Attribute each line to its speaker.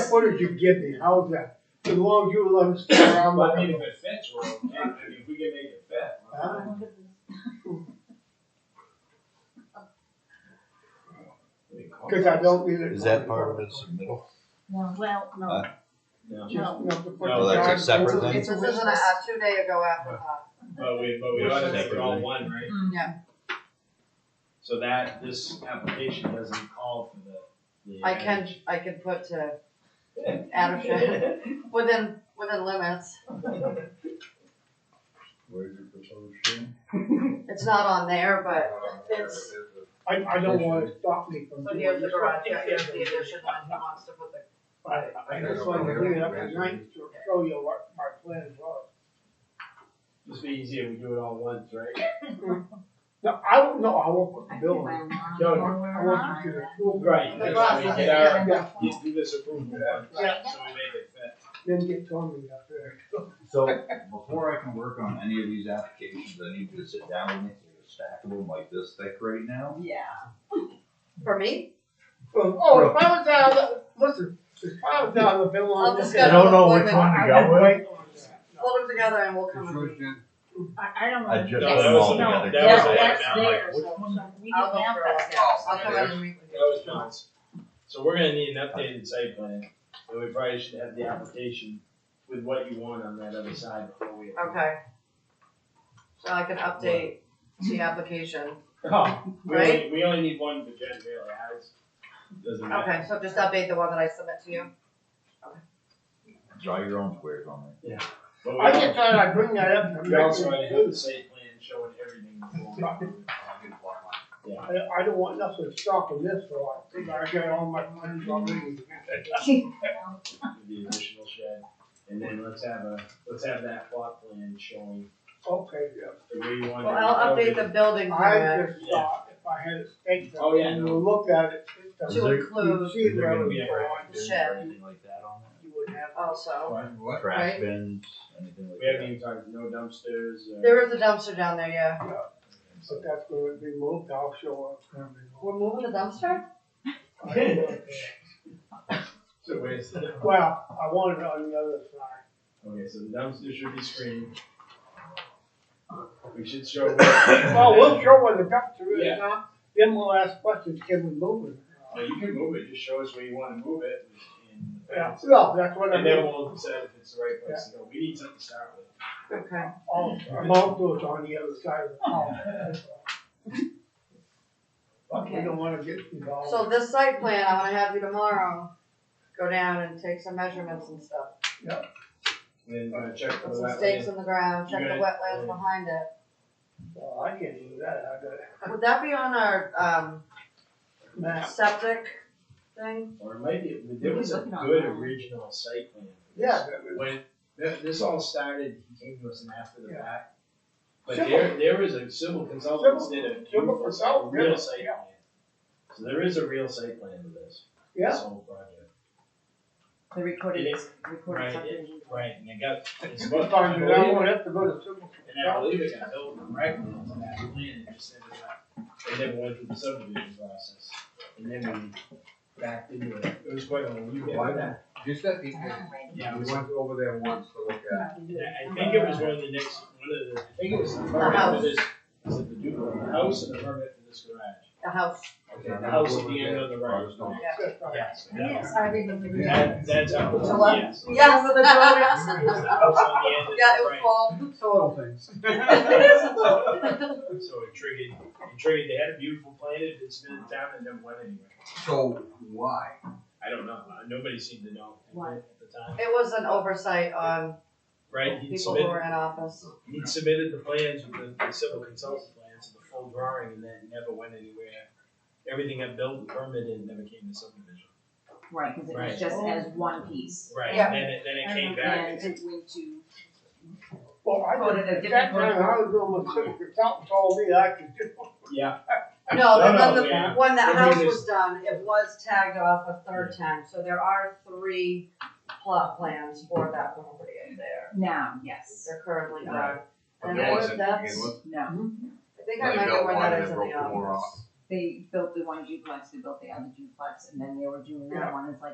Speaker 1: footage you give me, how's that? As long as you let them stick around
Speaker 2: Well,
Speaker 1: my
Speaker 2: I mean,
Speaker 1: meeting.
Speaker 2: if it fits, we're okay, I mean, if we can make it fit. we're
Speaker 1: Huh?
Speaker 2: fine.
Speaker 1: Cause I don't either.
Speaker 3: Is that part of it, it's the middle?
Speaker 4: No, well, no,
Speaker 3: Huh?
Speaker 2: No,
Speaker 1: Just, you know, to put
Speaker 2: No,
Speaker 1: the
Speaker 2: that's a
Speaker 1: time-
Speaker 3: Oh, separate thing?
Speaker 5: This isn't a, a two day ago after thought.
Speaker 2: But we, but we ought to make it all
Speaker 3: Separately.
Speaker 2: one, right?
Speaker 4: Mm.
Speaker 5: Yeah.
Speaker 2: So that, this application doesn't call for the, the.
Speaker 5: I can, I can put to
Speaker 2: added-
Speaker 5: add a shift, within, within limits,
Speaker 3: Where's your proposed Uh, shed?
Speaker 5: it's not on there, but it's.
Speaker 1: I, I don't wanna stop me from.
Speaker 5: So
Speaker 1: doing
Speaker 5: here's the
Speaker 1: this.
Speaker 5: garage, yeah, here's the addition, and he wants to put the.
Speaker 1: I, I just wanted to bring it up tonight to show you what my plans are.
Speaker 2: Just be easier, we do it all once, right?
Speaker 1: No, I don't, no, I won't put the bill
Speaker 4: I
Speaker 1: on.
Speaker 4: think I'm
Speaker 1: No,
Speaker 4: wrong.
Speaker 1: I want you to. approve it.
Speaker 2: Right,
Speaker 5: The
Speaker 2: that's
Speaker 5: process,
Speaker 2: how we get
Speaker 5: yeah.
Speaker 2: our,
Speaker 1: Yeah,
Speaker 2: you do this approval once, so we make
Speaker 5: Yeah.
Speaker 2: it fit.
Speaker 1: then get Tony up there.
Speaker 3: So, before I can work on any of these applications, I need you to sit down with me, so you stack them like this thick right now.
Speaker 5: For me?
Speaker 1: Oh, if I was down, the- listen, if I was down the bill
Speaker 5: I'll
Speaker 1: on this.
Speaker 5: discuss. I don't know which one
Speaker 1: I got wait.
Speaker 5: Hold them together and we'll come and.
Speaker 4: I, I don't know.
Speaker 3: I just-
Speaker 2: No,
Speaker 4: That's-
Speaker 2: that was-
Speaker 4: no,
Speaker 2: that was
Speaker 4: that's-
Speaker 2: all
Speaker 4: that's
Speaker 2: about, like,
Speaker 4: theirs,
Speaker 2: which
Speaker 4: so-
Speaker 3: one?
Speaker 4: so we
Speaker 5: I'll
Speaker 4: didn't have
Speaker 5: go
Speaker 4: that.
Speaker 5: through all- I'll come in and meet with
Speaker 2: That
Speaker 5: you.
Speaker 2: was John's. So we're gonna need an updated site plan, and we probably should have the application with what you want on that other side before we.
Speaker 5: Okay. So I can update the application,
Speaker 2: Oh, we only,
Speaker 5: Right?
Speaker 2: we only need one for Jen, really, ours doesn't matter.
Speaker 5: okay, so just update the one that I submit to you.
Speaker 3: Draw your own squares on there.
Speaker 2: But we
Speaker 1: I
Speaker 2: also,
Speaker 1: get tired, I bring that up. and
Speaker 2: we also
Speaker 1: I
Speaker 2: had to have the site plan showing everything before. we do
Speaker 1: I don't want nothing stopping this, so I think I got all my plans already.
Speaker 2: The additional shed, and then let's have a, let's have that plot plan showing
Speaker 1: Okay, yeah.
Speaker 2: the way you want.
Speaker 5: Well, I'll update the building
Speaker 1: I
Speaker 5: permit
Speaker 1: just thought if I had a stake,
Speaker 2: Oh, yeah,
Speaker 1: and
Speaker 2: no.
Speaker 1: you look at it, it
Speaker 3: Is
Speaker 1: doesn't.
Speaker 5: to
Speaker 3: there-
Speaker 5: include
Speaker 1: You see where
Speaker 3: gonna
Speaker 1: it
Speaker 3: be
Speaker 1: was
Speaker 2: a
Speaker 1: going,
Speaker 5: the shed.
Speaker 3: Anything like that on that?
Speaker 1: you would have.
Speaker 5: also.
Speaker 3: What? Trash
Speaker 5: Right.
Speaker 3: bins, anything like
Speaker 2: We haven't
Speaker 3: that?
Speaker 2: even talked, no dumpsters, uh.
Speaker 5: There is a dumpster down there, yeah.
Speaker 1: So that's where it'd be moved, I'll show up.
Speaker 5: We're moving the dumpster?
Speaker 2: So where's the, okay,
Speaker 1: Well, I wanted it on the other side.
Speaker 2: so the dumpster should be screened. We should show.
Speaker 1: Well, we'll show where the dumpster
Speaker 2: Yeah.
Speaker 1: is now, then we'll ask questions, can we move it?
Speaker 2: Well, you can move it, just show us where you wanna move it and.
Speaker 1: Yeah, no, that's what I
Speaker 2: And then
Speaker 1: mean.
Speaker 2: we'll decide if it's the right place to go. We need something to start with.
Speaker 5: Okay.
Speaker 1: Oh, Mount Blue's on the other side of the town.
Speaker 6: Oh.
Speaker 1: But we
Speaker 5: Okay.
Speaker 1: don't wanna get involved.
Speaker 5: So this site plan, I wanna have you tomorrow, go down and take some measurements and stuff.
Speaker 2: And then uh, check for
Speaker 5: Put
Speaker 2: the
Speaker 5: some stakes
Speaker 2: wetland.
Speaker 5: in the ground, check the
Speaker 2: You're
Speaker 5: wetlands
Speaker 2: uh,
Speaker 5: behind it.
Speaker 1: Well, I can't do that, I got
Speaker 5: Would that be on our, um,
Speaker 1: a map.
Speaker 5: septic thing?
Speaker 2: Or maybe, there was a
Speaker 4: Looking on
Speaker 2: good
Speaker 4: that.
Speaker 2: original site plan. for this.
Speaker 1: Yeah, that was-
Speaker 2: When, th- this all started, he came to us and after the
Speaker 1: Yeah.
Speaker 2: fact. But
Speaker 1: Civil.
Speaker 2: there, there was a civil consultant did a
Speaker 1: Civil
Speaker 2: beautiful, a
Speaker 1: consultant, yeah,
Speaker 2: real site
Speaker 1: yeah.
Speaker 2: plan. So there is a real site plan to this, this
Speaker 1: yeah,
Speaker 2: whole project.
Speaker 4: The
Speaker 2: It
Speaker 4: recorded,
Speaker 2: is.
Speaker 4: recorded
Speaker 2: Right,
Speaker 4: subdivision.
Speaker 2: Right, and it got, it's
Speaker 1: you
Speaker 2: what,
Speaker 1: can
Speaker 2: I
Speaker 1: find it, I
Speaker 2: believe,
Speaker 1: won't have to go to civil.
Speaker 2: and I believe it got built directly onto that plan, it just ended up, it never went through the subdivision process. And then we backed into it, it was quite a, you
Speaker 6: Why not? Just that
Speaker 4: Oh,
Speaker 6: people,
Speaker 2: Yeah, it
Speaker 6: we
Speaker 2: was
Speaker 6: went over there once to look at.
Speaker 2: Yeah, I think it was one of the next, one of the, I think it was the
Speaker 5: The
Speaker 2: permit
Speaker 5: house.
Speaker 2: for this, was it the duplex, the house and the permit for this garage?
Speaker 5: The house,
Speaker 2: Okay, the house at the end of the road. Yes.
Speaker 4: Yes, I remember.
Speaker 2: That, that's how, it was,
Speaker 5: The what?
Speaker 2: yes.
Speaker 5: Yes.
Speaker 2: It was the house on the end of
Speaker 5: yeah, it
Speaker 2: the
Speaker 5: was
Speaker 2: right.
Speaker 5: full.
Speaker 6: It's a little things.
Speaker 2: So it triggered, it triggered, they had a beautiful plan, it's been in town and never went anywhere.
Speaker 6: So why?
Speaker 2: I don't know, uh, nobody seemed to know
Speaker 4: Why?
Speaker 2: at the time,
Speaker 5: It was an oversight on
Speaker 2: right? He
Speaker 5: people who
Speaker 2: submitted,
Speaker 5: were in office.
Speaker 2: he submitted the plans with the- the civil consultant plans, the full drawing, and then it never went anywhere. Everything got built and permitted and never came to subdivision.
Speaker 4: Right, cause it
Speaker 2: Right.
Speaker 4: was just as one piece.
Speaker 2: Right,
Speaker 5: Yeah.
Speaker 2: and then it, then it came back.
Speaker 4: And it went to,
Speaker 1: Well, I
Speaker 4: Go to the
Speaker 1: didn't, at that
Speaker 4: different
Speaker 1: time, I was doing what civil consultant told me I could do.
Speaker 2: Yeah,
Speaker 5: No,
Speaker 2: No,
Speaker 5: but
Speaker 2: no,
Speaker 5: when the,
Speaker 2: yeah.
Speaker 5: when that house
Speaker 2: Everything
Speaker 5: was done, it was tagged off a third time, so there are three plot plans for that property in there.
Speaker 4: now, yes,
Speaker 5: They're currently done. And
Speaker 6: There
Speaker 5: I
Speaker 6: wasn't
Speaker 5: think
Speaker 6: to begin
Speaker 5: that's,
Speaker 6: with.
Speaker 4: no,
Speaker 5: I
Speaker 6: They
Speaker 5: think I might know
Speaker 6: built
Speaker 5: where
Speaker 6: one
Speaker 5: that
Speaker 6: and
Speaker 5: is in
Speaker 6: then
Speaker 5: the
Speaker 6: broke the more
Speaker 5: office.
Speaker 4: they built the one duplex, they built the other duplex, and then they were doing that one, it's like,